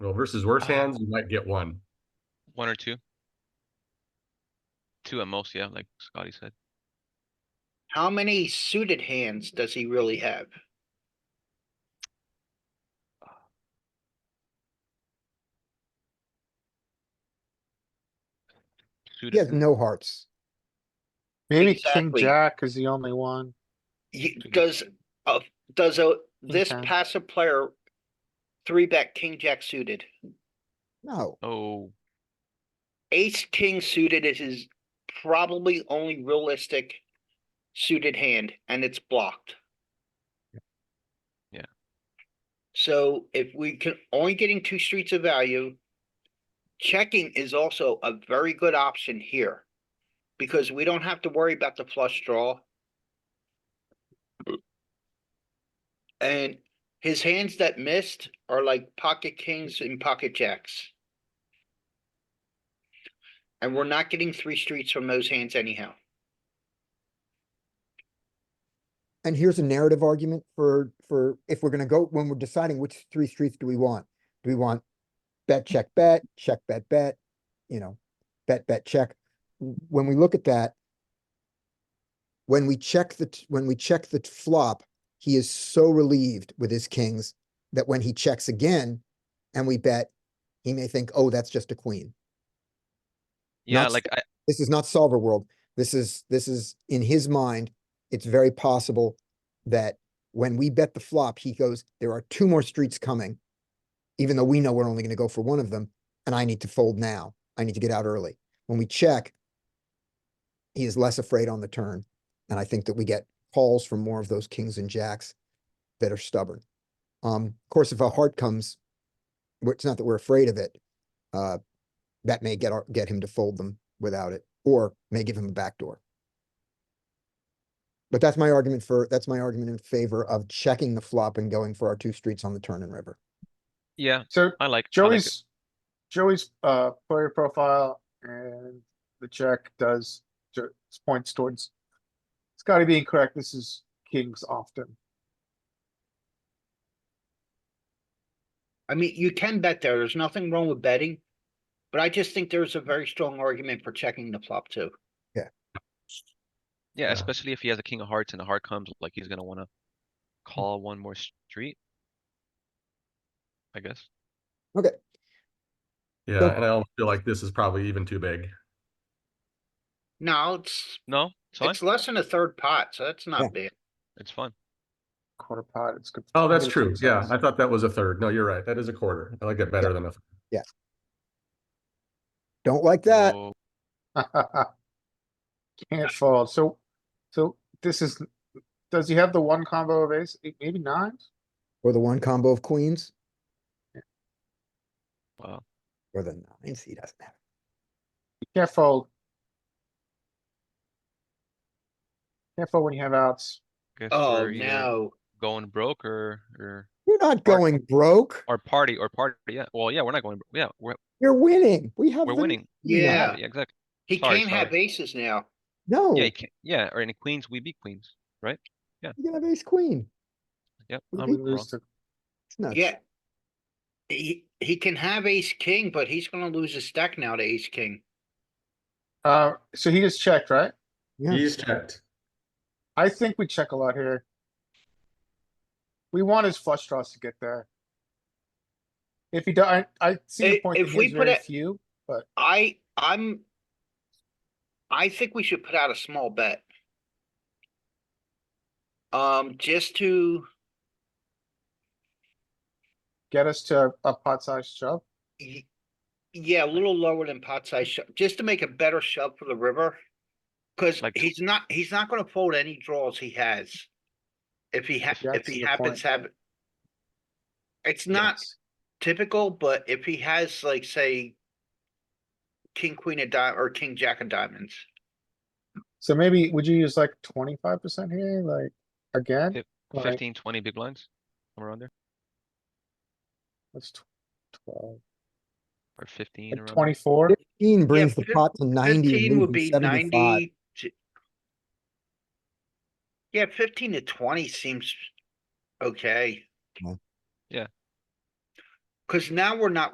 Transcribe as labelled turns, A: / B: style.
A: Well, versus worse
B: Uh,
A: hands, you might get one.
C: One or two. Two at most, yeah, like Scotty said.
B: How many suited hands does he really have?
C: Suited-
D: He has no hearts.
E: Maybe king
B: Exactly.
E: jack is the only one.
B: Ye- does, uh, does a, this
E: Okay.
B: passive player three bet king jack suited?
D: No,
C: Oh,
B: Ace king suited is his probably only realistic suited hand, and it's blocked.
C: Yeah.
B: So if we can only getting two streets of value, checking is also a very good option here. Because we don't have to worry about the flush draw. And his hands that missed are like pocket kings and pocket jacks. And we're not getting three streets from those hands anyhow.
D: and here's a narrative argument for, for, if we're gonna go, when we're deciding which three streets do we want? Do we want bet, check, bet, check, bet, bet, you know, bet, bet, check? W- When we look at that, when we check the, t- when we check the t- flop, he is so relieved with his kings that when he checks again and we bet, he may think, oh, that's just a queen.
C: yeah,
D: Not
C: like I,
D: This is not solver world. This is, this is, in his mind, it's very possible that when we bet the flop, he goes, there are two more streets coming. Even though we know we're only gonna go for one of them, and I need to fold now. I need to get out early. When we check, he is less afraid on the turn, and I think that we get calls from more of those kings and jacks that are stubborn. Um, of course, if a heart comes, we're- it's not that we're afraid of it. Uh, that may get our, get him to fold them without it, or may give him a backdoor. But that's my argument for, that's my argument in favor of checking the flop and going for our two streets on the turn and river.
C: yeah,
E: So
C: I like. I like it.
E: Joey's, Joey's, uh, player profile and the check does, ju- points towards. Scotty being correct, this is kings often.
B: I mean, you can bet there. There's nothing wrong with betting. But I just think there's a very strong argument for checking the flop too.
C: Yeah,
A: Yeah.
C: especially if he has a king of hearts and a heart comes, like he's gonna wanna call one more street. I guess.
A: Yeah, and I almost feel like this is probably even too big.
B: No, it's,
C: No, it's fine.
B: it's less than a third pot, so that's
D: Yeah.
B: not bad.
C: It's fine.
E: Quarter pot, it's good.
A: Oh, that's
E: good
A: true.
E: size.
A: Yeah, I thought that was a third. No, you're right. That is a quarter. I like that better than a.
D: Don't like that.
C: Whoa,
E: Can't fold, so, so this is, does he have the one combo of ace, eight- maybe nines?
D: Or the one combo of queens,
C: Wow.
D: or the nines, he doesn't have.
E: You Can't fold. Can't fold when you have outs.
C: Guess
B: Oh,
C: we're either
B: no.
C: Going broke or, or,
D: You're not going broke.
C: or party, or party, yeah. Well, yeah, we're not going, bro- yeah, we're,
D: You're winning. We have.
C: we're
D: the-
C: winning.
B: Yeah,
C: Yeah, exactly.
B: he
C: sorry,
B: can't have
C: sorry.
B: aces now.
D: No,
C: Yeah, you
D: you
C: can, yeah, or in queens, we beat queens.
D: can have ace queen.
C: Yep.
D: We
C: I'm
D: beat
E: We
D: Big
C: wrong.
E: lose to,
D: It's nuts.
B: Yeah. He, he can have ace king, but he's gonna lose his stack now to ace king.
E: uh, so he just checked, right?
D: Yeah.
A: He's checked.
E: I think we check a lot here. We want his flush draws to get there. If he does, I, I see your
B: If-
E: point. that
B: if
E: he
B: we
E: has
B: put
E: very
B: it-
E: Few, but
B: I, I'm. I think we should put out a small bet. Um, just to,
E: get us to a pot size shove.
B: y- yeah, a little lower than pot size shove, just to make a better shove for the river. Cause
C: Like tw-
B: he's not, he's not gonna fold any draws he has. If he ha-
E: Yeah,
B: if
E: that's a
B: he
E: good point.
B: happens to have. It's not
E: Yes.
B: typical, but if he has like, say. King, queen of di- or king, jack of diamonds.
E: So maybe, would you use like twenty-five percent here, like, again?
C: Fif-
E: Like,
C: Fifteen, twenty big blinds, somewhere around there,
E: That's tw- twelve,
C: or fifteen
E: like
C: around there.
E: twenty-four.
D: Fifteen brings the
B: fif-
D: pot to ninety
B: Fifteen
D: and
B: would
D: moves
B: be
D: to seventy-five.
B: ninety. to- Yeah, fifteen to twenty seems okay.
D: Yeah.
C: Yeah.
B: Cause now we're not